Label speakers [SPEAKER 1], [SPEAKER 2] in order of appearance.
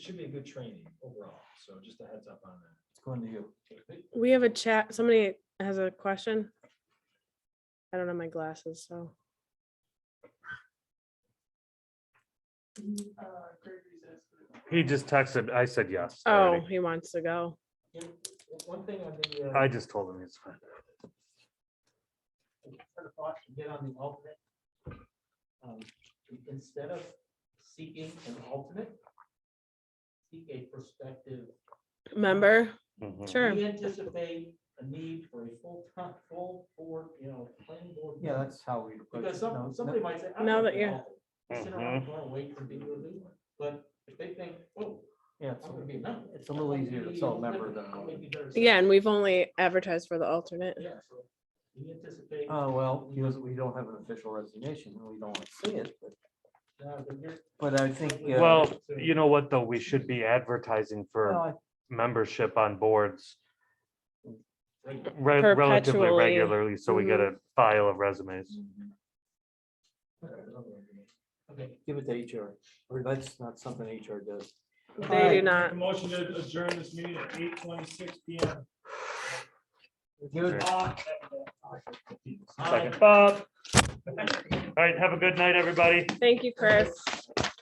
[SPEAKER 1] should be a good training overall, so just a heads up on that.
[SPEAKER 2] It's going to you.
[SPEAKER 3] We have a chat, somebody has a question. I don't have my glasses, so.
[SPEAKER 4] He just texted, I said yes.
[SPEAKER 3] Oh,
[SPEAKER 4] already.
[SPEAKER 3] he wants to go.
[SPEAKER 1] One thing on the, uh,
[SPEAKER 4] I just told him it's fine.
[SPEAKER 1] sort of thought to get on the alternate. Um, Instead of seeking an alternate, seek a prospective.
[SPEAKER 3] Member,
[SPEAKER 4] Mhm.
[SPEAKER 3] sure.
[SPEAKER 1] We anticipate a need for a full time, full board, you know, planning board.
[SPEAKER 2] Yeah, that's how we. approach
[SPEAKER 1] Because
[SPEAKER 2] it.
[SPEAKER 1] some,
[SPEAKER 2] No, no,
[SPEAKER 1] somebody might say. I
[SPEAKER 3] Now
[SPEAKER 1] want
[SPEAKER 3] that
[SPEAKER 1] an
[SPEAKER 3] you're-
[SPEAKER 1] alternate. Sit around, tomorrow, wait for people to do one. But if they think, oh,
[SPEAKER 2] Yeah, it's,
[SPEAKER 1] I'm gonna be a member.
[SPEAKER 2] it's a little easier to sell a member than.
[SPEAKER 1] I'll make you better
[SPEAKER 3] Yeah,
[SPEAKER 1] sell.
[SPEAKER 3] and we've only advertised for the alternate.
[SPEAKER 1] Yeah, so we anticipate.
[SPEAKER 2] Oh, well, because we don't have an official resignation, and we don't want to see it, but,
[SPEAKER 1] No, but you're-
[SPEAKER 2] but I think. uh,
[SPEAKER 4] Well, you know what, though? We should be advertising
[SPEAKER 2] no,
[SPEAKER 3] Oh.
[SPEAKER 4] for
[SPEAKER 2] I-
[SPEAKER 4] membership on boards
[SPEAKER 1] right.
[SPEAKER 4] re- relatively
[SPEAKER 3] Perpetually. Mm-hmm.
[SPEAKER 4] regularly, so we get a file of resumes.
[SPEAKER 1] Okay.
[SPEAKER 2] Give it to HR, or that's not something HR does.
[SPEAKER 3] They do not.
[SPEAKER 5] A motion to adjourn this meeting at eight twenty-six P M.
[SPEAKER 2] Good.
[SPEAKER 4] Second, Bob. All right, have a good night, everybody.
[SPEAKER 3] Thank you, Chris.